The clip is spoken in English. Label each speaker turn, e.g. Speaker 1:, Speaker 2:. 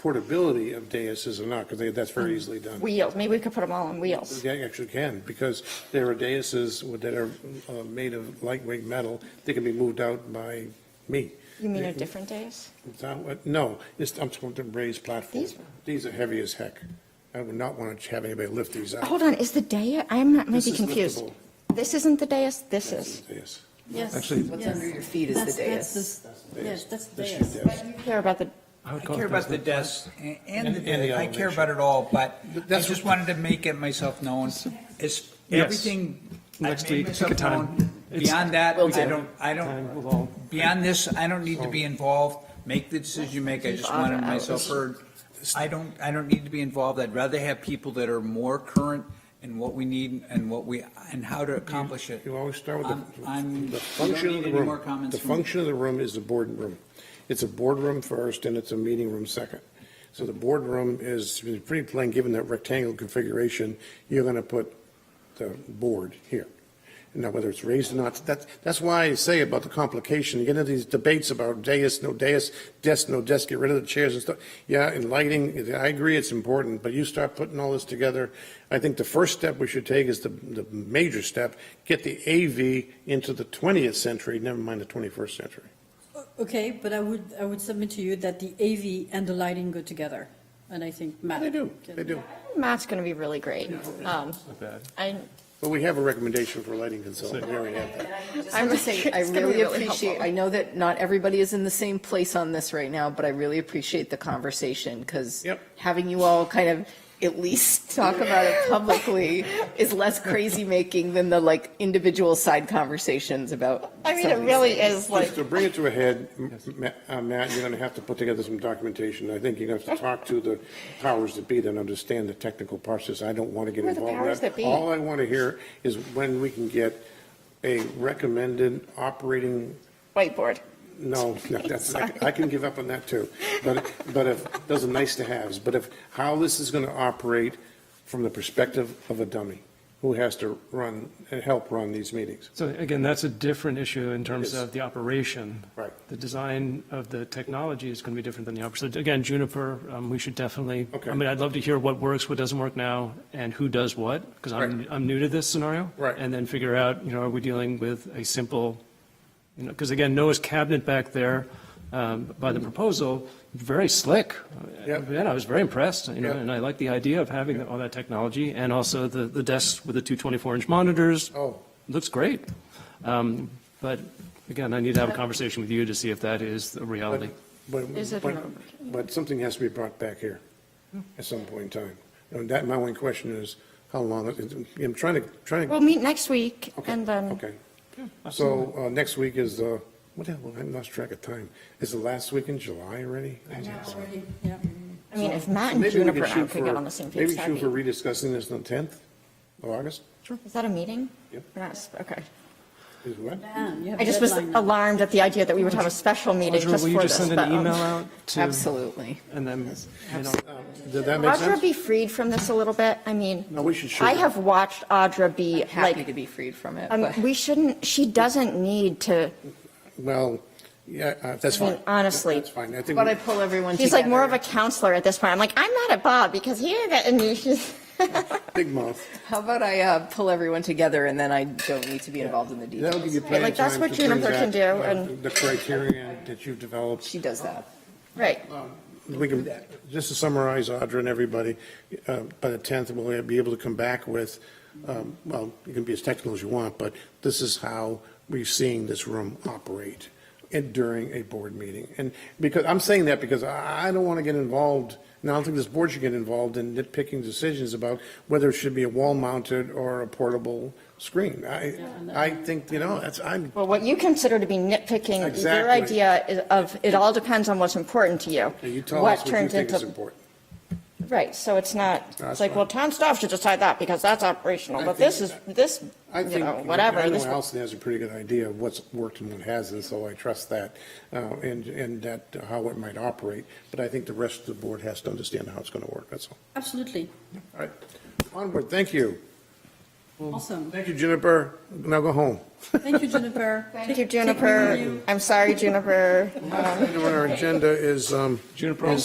Speaker 1: portability of daises or not, because that's very easily done.
Speaker 2: Wheels, maybe Mm-hmm. we could put them all on wheels.
Speaker 1: They actually can, because there are daises with- that are uh, made of lightweight metal, they can be moved out by me.
Speaker 2: You mean a different days?
Speaker 1: It's not what- No, it's, I'm talking about raised platforms.
Speaker 2: These-
Speaker 1: These are heavy as heck. I would not want to have anybody lift these out.
Speaker 2: Hold on, is the dais, I'm not,
Speaker 1: Uh, This
Speaker 2: maybe
Speaker 1: is
Speaker 2: confused.
Speaker 1: liftable.
Speaker 2: This isn't the dais, this is.
Speaker 1: Yes.
Speaker 3: Yes.
Speaker 4: Actually-
Speaker 3: yes.
Speaker 5: What's under your feet is the
Speaker 3: That's- that's
Speaker 5: dais.
Speaker 3: the- Yes, that's the
Speaker 1: This
Speaker 3: dais.
Speaker 1: is
Speaker 2: But you care about the,
Speaker 4: I
Speaker 6: I
Speaker 4: would call
Speaker 6: care
Speaker 4: it
Speaker 6: about the
Speaker 4: desperate.
Speaker 6: desk a- and the,
Speaker 1: And- and the
Speaker 6: desk. I care
Speaker 1: elevation.
Speaker 6: about it all, but
Speaker 1: But
Speaker 6: I
Speaker 1: that's
Speaker 6: just
Speaker 1: what-
Speaker 6: wanted to make it myself known. It's
Speaker 4: Yes.
Speaker 6: everything. I
Speaker 4: Next
Speaker 6: made
Speaker 4: week,
Speaker 6: myself
Speaker 4: pick a time.
Speaker 6: known.
Speaker 4: It's-
Speaker 6: Beyond that,
Speaker 5: Will
Speaker 6: I
Speaker 5: do.
Speaker 6: don't, I
Speaker 4: Time
Speaker 6: don't,
Speaker 4: will all-
Speaker 6: beyond this, I don't need to be involved. Make the decision you make. I just wanted
Speaker 2: Five hours.
Speaker 6: myself heard. I don't, I don't need to be involved. I'd rather have people that are more current in what we need and what we, and how to accomplish it.
Speaker 1: You always start with
Speaker 6: I'm- Um, I'm-
Speaker 1: the- the
Speaker 6: you
Speaker 1: function
Speaker 6: don't
Speaker 1: of
Speaker 6: need
Speaker 1: the
Speaker 6: any more
Speaker 1: room.
Speaker 6: comments
Speaker 1: The
Speaker 6: from-
Speaker 1: function of the room is the boardroom. It's a boardroom first, and it's a meeting room second. So the boardroom is pretty plain, given that rectangle configuration, you're going to put the board here. Now, whether it's raised or not, that's, that's why I say about the complication, you get into these debates about dais, no dais, desk, no desk, get rid of the chairs and stuff. Yeah, and lighting, I agree it's important, but you start putting all this together, I think the first step we should take is the, the major step, get the AV into the 20th century, never mind the 21st century.
Speaker 3: Okay, but I would, I would submit to you that the AV and the lighting go together, and I think Matt.
Speaker 1: They do,
Speaker 3: can-
Speaker 1: they do.
Speaker 2: Matt's going to be really great. Um,
Speaker 4: bad.
Speaker 2: I,
Speaker 1: But we have a recommendation for a lighting consultant, we already have that.
Speaker 5: I
Speaker 2: I'm
Speaker 5: would say, I
Speaker 2: it's gonna be
Speaker 5: really
Speaker 2: really
Speaker 5: appreciate,
Speaker 2: helpful.
Speaker 5: I know that not everybody is in the same place on this right now, but I really appreciate the conversation, because
Speaker 1: Yep.
Speaker 5: having you all kind of at least talk about it publicly is less crazy-making than the like individual side conversations about.
Speaker 2: I mean,
Speaker 5: some
Speaker 2: it
Speaker 5: of these
Speaker 2: really
Speaker 5: things.
Speaker 2: is like,
Speaker 1: Just to bring it to a head, M- Ma- uh, Matt, you're going to have to put together some documentation. I think you're going to have to talk to the powers that be that understand the technical process. I don't want to get
Speaker 2: Who are the
Speaker 1: involved in that.
Speaker 2: powers that be?
Speaker 1: All I want to hear is when we can get a recommended operating,
Speaker 2: whiteboard.
Speaker 1: no, no, that's, I can- I can give up on that too. But, but if, those are nice to haves, but if, how this is going to operate from the perspective of a dummy who has to run, and help run these meetings.
Speaker 4: So again, that's a different issue in terms
Speaker 1: Yes.
Speaker 4: of the operation.
Speaker 1: Right.
Speaker 4: The design of the technology is going to be different than the operation. So again, Juniper, um, we should definitely,
Speaker 1: Okay.
Speaker 4: I mean, I'd love to hear what works, what doesn't work now, and who does what, because I'm,
Speaker 1: Right.
Speaker 4: I'm new to this scenario.
Speaker 1: Right.
Speaker 4: And then figure out, you know, are we dealing with a simple, you know, because again, Noah's cabinet back there um, by the proposal, very slick.
Speaker 1: Yep.
Speaker 4: Man, I was very impressed, you know,
Speaker 1: Yep.
Speaker 4: and I like the idea of having all that technology, and also the, the desks with the two 24-inch monitors,
Speaker 1: Oh,
Speaker 4: Looks great. Um, But again, I need to have a conversation with you to see if that is a reality.
Speaker 1: But,
Speaker 2: Is it
Speaker 1: but,
Speaker 2: an-
Speaker 1: but something has to be brought back here at some point in time. And that, my one question is, how long, it- I'm trying to, trying to.
Speaker 2: We'll meet next week
Speaker 1: okay,
Speaker 2: and then,
Speaker 1: Okay. So, uh, next week is, uh, what the hell, I lost track of time. Is the last week in July already?
Speaker 3: Yeah, already, yeah.
Speaker 2: I mean, if Matt and
Speaker 1: Maybe we
Speaker 2: Juniper and I
Speaker 1: shoot
Speaker 2: could get
Speaker 1: for-
Speaker 2: on the same page,
Speaker 1: Maybe shoot
Speaker 2: that'd
Speaker 1: for
Speaker 2: be.
Speaker 1: rediscussing this on the 10th of August,
Speaker 2: Is that a meeting?
Speaker 1: Yep.
Speaker 2: We're not- Okay.
Speaker 1: is what?
Speaker 3: Man, you have
Speaker 2: I
Speaker 3: a
Speaker 2: just was
Speaker 3: deadline now.
Speaker 2: alarmed at the idea that we would have a special meeting
Speaker 4: Audra,
Speaker 2: just
Speaker 4: will
Speaker 2: for this.
Speaker 4: you just send
Speaker 2: but,
Speaker 4: an
Speaker 2: um,
Speaker 4: email out to,
Speaker 5: Absolutely.
Speaker 4: and then, you know,
Speaker 1: Did Um, that make
Speaker 2: Audra
Speaker 1: sense?
Speaker 2: be freed from this a little bit? I mean,
Speaker 1: No, we should shoot.
Speaker 2: I
Speaker 1: it.
Speaker 2: have watched Audra be
Speaker 5: Happy to
Speaker 2: like,
Speaker 5: be freed from it,
Speaker 2: um,
Speaker 5: but.
Speaker 2: we shouldn't, she doesn't need to,
Speaker 1: Well, yeah, uh, that's
Speaker 2: I mean,
Speaker 1: fine.
Speaker 2: honestly.
Speaker 1: That's fine. I think,
Speaker 5: But I pull everyone together.
Speaker 2: she's like more of a counselor at this point. I'm like, I'm mad at Bob because he didn't get any issues.
Speaker 1: big mouth.
Speaker 5: How about I uh, pull everyone together and then I don't need to be involved in the
Speaker 1: That'll give
Speaker 5: details?
Speaker 1: you plenty of
Speaker 2: like,
Speaker 1: time.
Speaker 2: that's what
Speaker 1: to bring
Speaker 2: Juniper can
Speaker 1: back,
Speaker 2: do,
Speaker 1: uh,
Speaker 2: and-
Speaker 1: The criteria that you've developed.
Speaker 5: She does that.
Speaker 2: Right.
Speaker 1: We can, just to summarize, Audra and everybody, uh, by the 10th, we'll be able to come back with, um, well, you can be as technical as you want, but this is how we're seeing this room operate and during a board meeting. And because, I'm saying that because I I don't want to get involved, and I don't think this board should get involved in nitpicking decisions about whether it should be a wall-mounted or a portable screen. I, I think, you know, that's, I'm,
Speaker 2: Well, what you consider to be nitpicking, is your
Speaker 1: Exactly.
Speaker 2: idea is- of, it all depends on what's important to you.
Speaker 1: you tell us what you
Speaker 2: turns
Speaker 1: think is
Speaker 2: into-
Speaker 1: important.
Speaker 2: Right, so it's not,
Speaker 1: That's
Speaker 2: it's like,
Speaker 1: fine.
Speaker 2: well, town staff should decide that because that's operational,
Speaker 1: I
Speaker 2: but
Speaker 1: think-
Speaker 2: this is, this,
Speaker 1: I
Speaker 2: you
Speaker 1: think,
Speaker 2: know, whatever.
Speaker 1: I know
Speaker 2: this-
Speaker 1: Allison has a pretty good idea of what's worked and what hasn't, so I trust that, uh, and, and that, uh, how it might operate. But I think the rest of the board has to understand how it's going to work, that's all.
Speaker 3: Absolutely,
Speaker 1: All right, onward, thank you.
Speaker 3: awesome.
Speaker 1: Thank you, Juniper. Now go home.
Speaker 3: Thank you, Juniper.
Speaker 2: Thank you,
Speaker 3: Take- take me with you.
Speaker 2: Juniper. I'm sorry, Juniper.
Speaker 1: Last item on our agenda is, um,
Speaker 4: Juniper,
Speaker 1: is-